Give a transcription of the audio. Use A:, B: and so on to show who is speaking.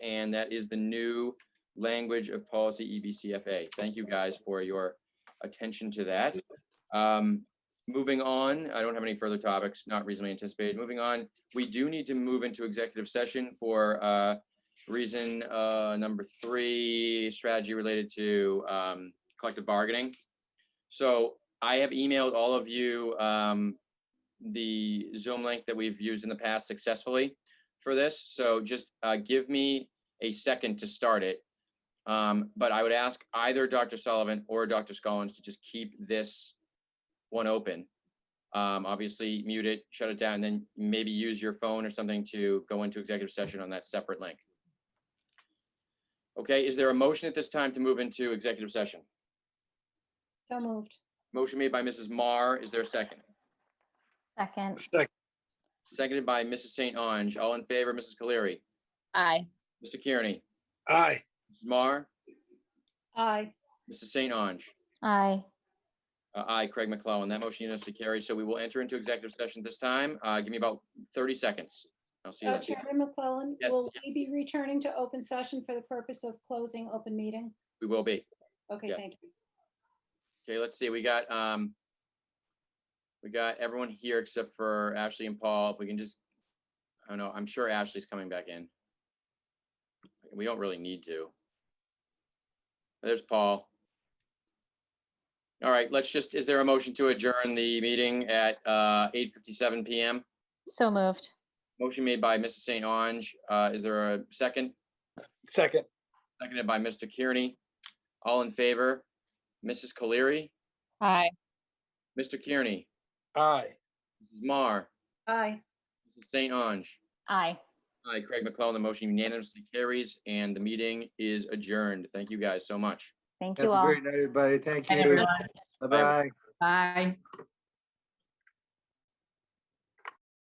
A: and that is the new language of policy E EBCFA. Thank you guys for your attention to that. Um, Moving on, I don't have any further topics not reasonably anticipated. Moving on, we do need to move into executive session for uh, reason uh, number three, strategy related to um, collective bargaining. So I have emailed all of you um, the Zoom link that we've used in the past successfully for this. So just uh, give me a second to start it. Um, But I would ask either Dr. Sullivan or Dr. Scollins to just keep this one open. Um, Obviously mute it, shut it down, and then maybe use your phone or something to go into executive session on that separate link. Okay, is there a motion at this time to move into executive session?
B: So moved.
A: Motion made by Mrs. Marr. Is there a second?
C: Second,
D: Second,
A: Seconded by Mrs. St. Ange. All in favor, Mrs. Cleary,
E: Aye.
A: Mr. Kearney,
D: aye.
A: Mrs. Marr,
B: Aye.
A: Mrs. St. Ange.
C: aye.
A: Uh, Aye, Craig McClellan. That motion unanimously carries. So we will enter into executive session this time. Uh, Give me about 30 seconds. I'll see you
B: Uh,
A: then.
B: Chairman McClellan,
A: Yes.
B: will we be returning to open session for the purpose of closing open meeting?
A: We will be.
B: Okay,
A: Yeah.
B: thank you.
A: Okay, let's see. We got, um, we got everyone here except for Ashley and Paul. If we can just, I don't know, I'm sure Ashley's coming back in. We don't really need to. There's Paul. All right, let's just, is there a motion to adjourn the meeting at, uh, eight fifty-seven PM?
C: So moved.
A: Motion made by Mrs. St. Ange. Uh, is there a second?
D: Second,
A: Seconded by Mr. Kearney. All in favor? Mrs. Colery,
E: Aye.
A: Mr. Kearney,
D: aye.
A: Mrs. Marr,
B: Aye.
A: Mrs. St. Ange.
C: Aye.
A: Hi, Craig McClellan. The motion unanimously carries and the meeting is adjourned. Thank you guys so much.
C: Thank
F: Have
C: you
F: a
C: all.
F: great night, everybody. Thank
C: Night,
F: you.
C: everyone.
F: Bye-bye.
G: Bye.